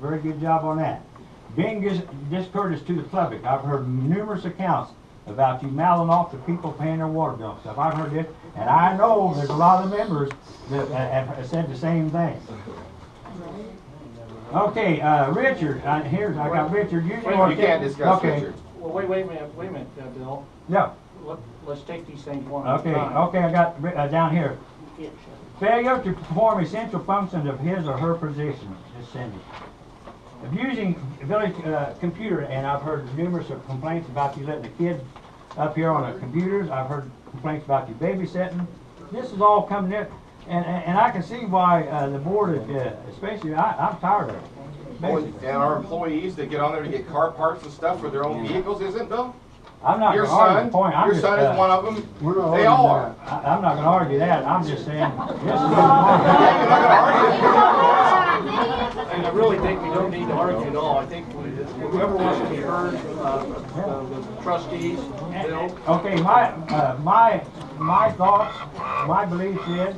Very good job on that. Being dis- discourteous to the public, I've heard numerous accounts about you mouthing off to people paying their water bill and stuff. I've heard this, and I know there's a lot of members that have have said the same thing. Okay, uh, Richard, uh, here's, I got Richard, you. Wait, want you to- can't discuss okay. Richard. Well, wait, wait a minute, wait a minute, uh, Bill. No, Let, let's take these things one at a okay, time. okay, I got, Ri- uh, down here. Failure to perform essential functions of his or her position, Ms. Cindy. Abusing village uh, computer, and I've heard numerous of complaints about you letting the kids up here on the computers. I've heard complaints about you babysitting. This is all coming in, and, and and I can see why uh, the board, is, uh, especially, I, I'm tired of it. Boy, Basically, And our employees that get on there to get car parts and stuff for their own vehicles, isn't Bill? I'm not Your gonna argue son, the point, I'm your just, son is one uh, of them. We're not They arguing all are. I- I'm not gonna argue that, I'm just saying, this is. You're not gonna argue. And I really think we don't need to argue at all. I think we- whoever wants to be heard, uh, uh, the trustees, Bill. Okay, my, uh, my, my thoughts, my belief is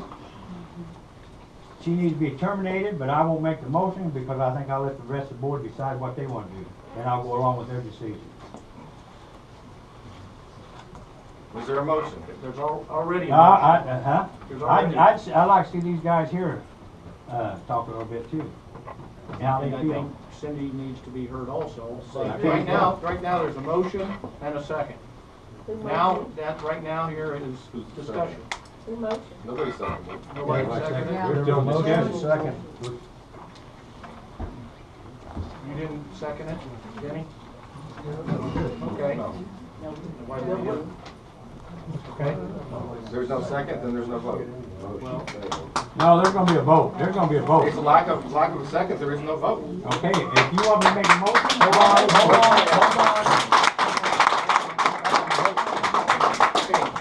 she needs to be terminated, but I won't make the motion because I think I'll let the rest of the board decide what they want to do. And I'll go along with their decision. Was there a motion? There's al- already. Uh, I, uh, huh? There's I'd, already- I'd, s- I'd like to see these guys here, uh, talk a little bit too. And how they And I feel. think Cindy needs to be heard also. So you But think- right now, right now, there's a motion and a second. Now, that, right now here is discussion. Who motioned? Nobody seconded it. Nobody seconded it? There's a motion and a second. You didn't second it, Denny? Okay. Why didn't you? Okay, If There's no second, then there's no vote. well, No, there's gonna be a vote, there's gonna be a It's a vote. lack of, lack of a second, there is no vote. Okay, if you want me to make a motion, hold on, hold on, hold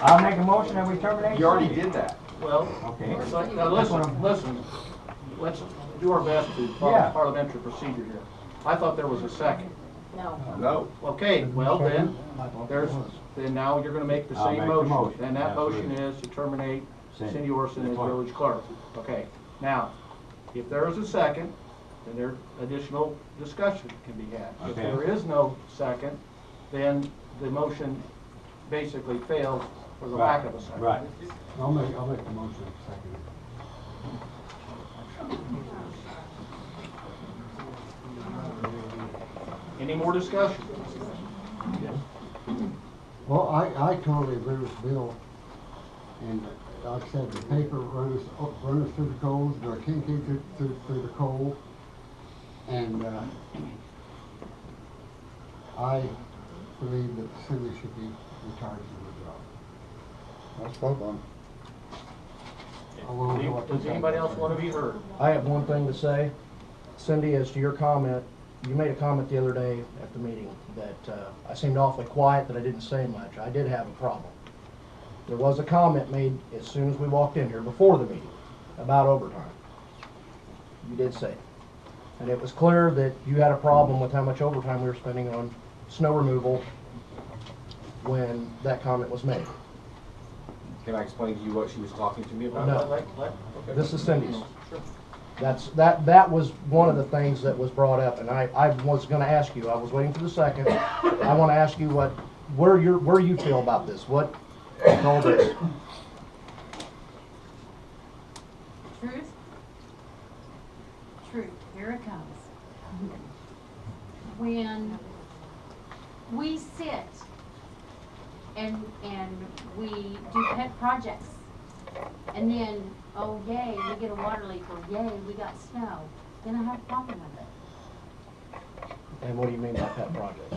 on. I'll make a motion that we terminate. You already Cindy. did that. well, Okay. but now listen, listen, let's do our best to Yeah. follow parliamentary procedure here. I thought there was a second. No. No. Okay, well then, there's, then now you're gonna make the I'll same make the motion. motion. And that motion Absolutely. is to terminate Cindy. Cindy Orson as Clerk. village clerk. Okay, now, if there is a second, then there, additional discussion can be had. If Okay. there is no second, then the motion basically fails for the lack of a second. Right. I'll make, I'll make the motion and second. Any more discussion? Well, I, I totally agree with Bill. And like I said, the paper run us, run us through the coals, the king came through, through, through the coal. And, uh, I believe that Cindy should be retired from I spoke on. the job. I wanna know what Does the- anybody else wanna be heard? I have one thing to say. Cindy, as to your comment, you made a comment the other day at the meeting that uh, I seemed awfully quiet, that I didn't say much. I did have a problem. There was a comment made as soon as we walked in here before the meeting about overtime. You did say it. And it was clear that you had a problem with how much overtime we were spending on snow removal when that comment was made. Can I explain to you what she was talking to me about? No. Like, like, okay. This is Cindy's. That's, that, that was one of the things that was brought up, and I, I was gonna ask you, I was waiting for the second. I wanna ask you what, where your, where you feel about this, what, all this. Truth? Truth, here it comes. When we sit and, and we do pet projects, and then, oh yay, we get a water leak, or yay, we got snow, then I have a problem with it. And what do you mean by pet projects?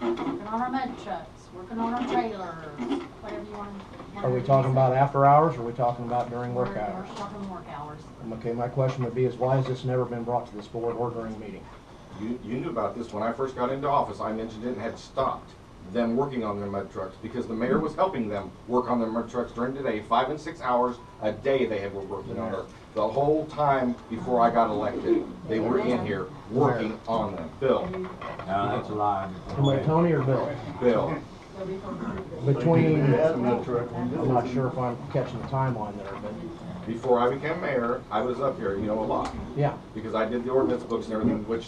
Working on our mud trucks, working on our trailers, whatever you want. Are we talking about after hours, or are we talking about during work hours? We're talking work hours. Okay, my question would be is why has this never been brought to this board or during a meeting? You, you knew about this when I first got into office. I mentioned it and had stopped them working on their mud trucks because the mayor was helping them work on their mud trucks during the day, five and six hours a day they had were working on it. The whole time before I got elected, they were in here working on them. Bill, No, that's a lie. Between Tony or Bill? Bill, Between, I'm not sure if I'm catching the timeline there, but Before I became mayor, I was up here, you know, a lot, Yeah. because I did the ordinance books and everything, which